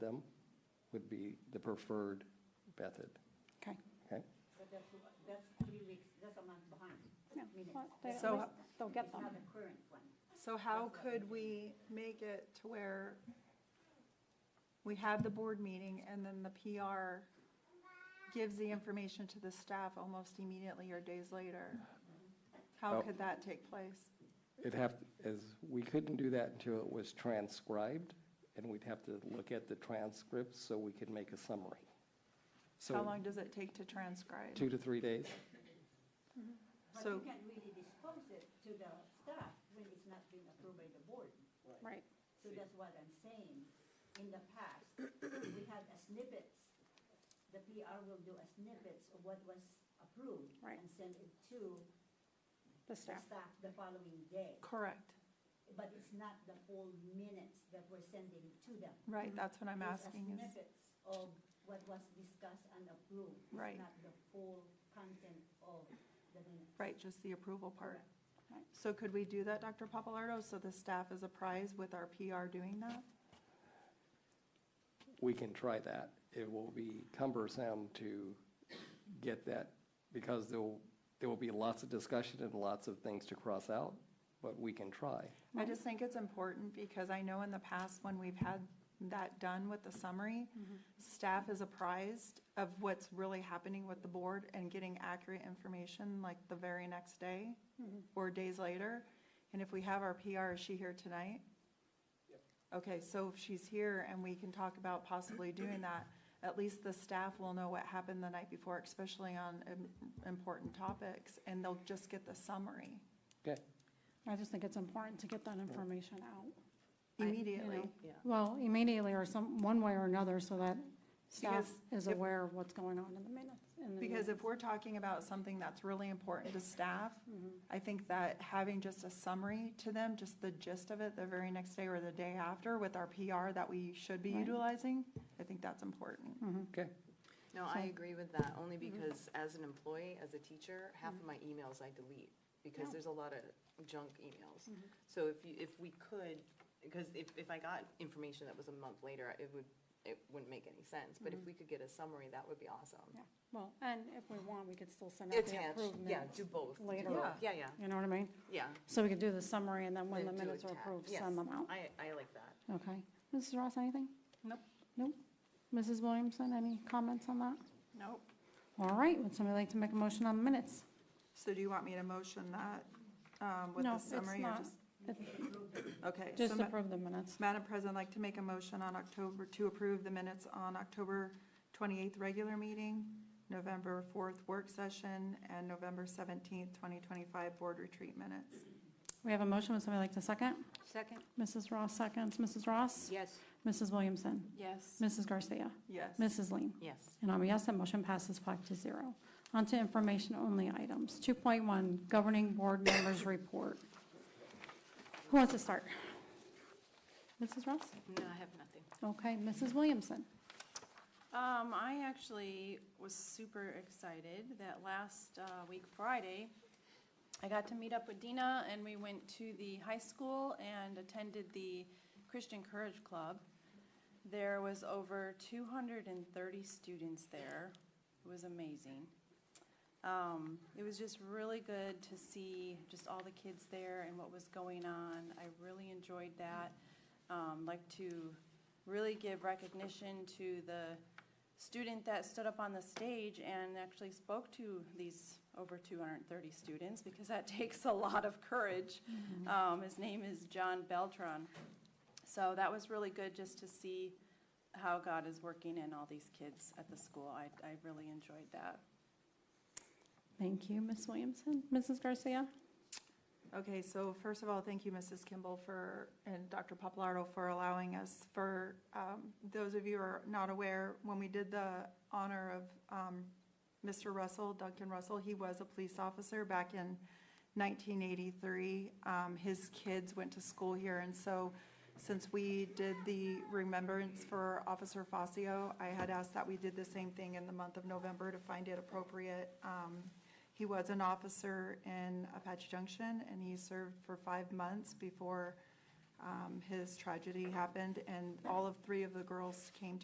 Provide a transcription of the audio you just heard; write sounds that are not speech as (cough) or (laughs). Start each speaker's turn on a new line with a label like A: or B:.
A: them would be the preferred method,
B: Okay.
A: okay?
C: But that's, that's three weeks, that's a month behind.
B: Yeah,
C: Minutes.
B: well, they- at
D: So-
B: least They'll get
C: It's not the
B: them.
C: current one.
D: So how could we make it to where we have the board meeting and then the PR gives the information to the staff almost immediately or days later? How
A: Oh.
D: could that take place?
A: It'd have, as, we couldn't do that until it was transcribed, and we'd have to look at the transcripts so we could make a summary. So
D: How long does it take to transcribe?
A: Two to three days.
C: But
D: So-
C: you can't really dispose it to the staff when it's not been approved by the board.
B: Right.
C: So that's what I'm saying. In the past, we had a snippets. The PR will do a snippets of what was approved.
B: Right.
C: And send it to
B: The
C: the
B: staff.
C: staff the following day.
D: Correct,
C: But it's not the full minutes that we're sending to them.
D: right, that's what I'm
C: It's a
D: asking is,
C: Snippets of what was discussed and approved. It's
D: Right.
C: Not the full content of the minutes.
D: right, just the approval part.
C: Correct.
B: Right.
D: So could we do that, Dr. Papalardo, so the staff is apprised with our PR doing that?
A: We can try that. It will be cumbersome to get that, because there'll, there will be lots of discussion and lots of things to cross out, but we can try.
D: I just think it's important because I know in the past when we've had that done with the summary, staff is apprised of what's really happening with the board and getting accurate information like the very next day or days later. And if we have our PR, is she here tonight? Okay, so if she's here and we can talk about possibly doing that, at least the staff will know what happened the night before, especially on im- important topics, and they'll just get the summary
A: Okay?
B: I just think it's important to get that information out.
D: immediately.
B: Well, immediately or some, one way or another, so that staff
D: Because
B: is
D: if-
B: aware of what's going on in the minutes. in the
D: Because if
B: meetings.
D: we're talking about something that's really important to staff,
B: Mm-hmm.
D: I think that having just a summary to them, just the gist of it, the very next day or the day after with our PR that we should be utilizing, I think that's
B: Mm-hmm.
D: important.
A: Okay.
E: No, I agree with that, only because as an employee, as a teacher, half of my emails I delete, because there's a lot of junk emails. So if you, if we could, because if, if I got information that was a month later, it would, it wouldn't make any sense, but if we could get a summary, that would be awesome.
B: Yeah. Well, and if we want, we could still send out the
E: Attach,
B: approved
E: yeah,
B: minutes.
E: do both. do
B: later.
E: both. Yeah, yeah,
B: You know what I mean?
E: yeah.
B: So we could do the summary and then when the
E: Then do
B: minutes are
E: atta-
B: approved,
E: yes,
B: send them out.
E: I, I like that.
B: Okay. Mrs. Ross, anything?
D: Nope,
B: Nope. Mrs. Williamson, any comments on that?
D: nope.
B: All right, would somebody like to make a motion on the minutes?
D: So do you want me to motion that um, with
B: No,
D: the
B: it's
D: summary? or
B: not.
D: just-
B: It-
D: Okay. so
B: Just
D: ma-
B: approve the minutes.
D: Madam President, I'd like to make a motion on October, to approve the minutes on October 28th regular meeting, November 4th work session, and November 17th, 2025 board retreat minutes.
B: We have a motion, would somebody like to second?
F: Second?
B: Mrs. Ross seconds. Mrs. Ross?
F: Yes.
B: Mrs. Williamson?
F: Yes.
B: Mrs. Garcia?
D: Yes.
B: Mrs. Lean?
E: Yes.
B: And I'm a yes, that motion passes five to zero. On to information-only items. 2.1, Governing Board Members Report. Who wants to start? Mrs. Ross?
F: No, I have nothing.
B: Okay, Mrs. Williamson?
G: Um, I actually was super excited that last uh, week, Friday, I got to meet up with Dina, and we went to the high school and attended the Christian Courage Club. There was over 230 students there. It was amazing. Um, It was just really good to see just all the kids there and what was going on. I really enjoyed that. Um, Like to really give recognition to the student that stood up on the stage and actually spoke to these over 230 students, because that (laughs) takes a lot of courage. Um, His name is John Beltran. So that was really good, just to see how God is working in all these kids at the school. I I really enjoyed that.
B: Thank you, Ms. Williamson. Mrs. Garcia?
D: Okay, so first of all, thank you, Mrs. Kimball, for, and Dr. Papalardo for allowing us, for, um, those of you who are not aware, when we did the honor of um, Mr. Russell, Duncan Russell, he was a police officer back in 1983. Um, His kids went to school here, and so since we did the remembrance for Officer Fazio, I had asked that we did the same thing in the month of November to find it appropriate. Um, He was an officer in Apache Junction, and he served for five months before um, his tragedy happened, and all of three of the girls came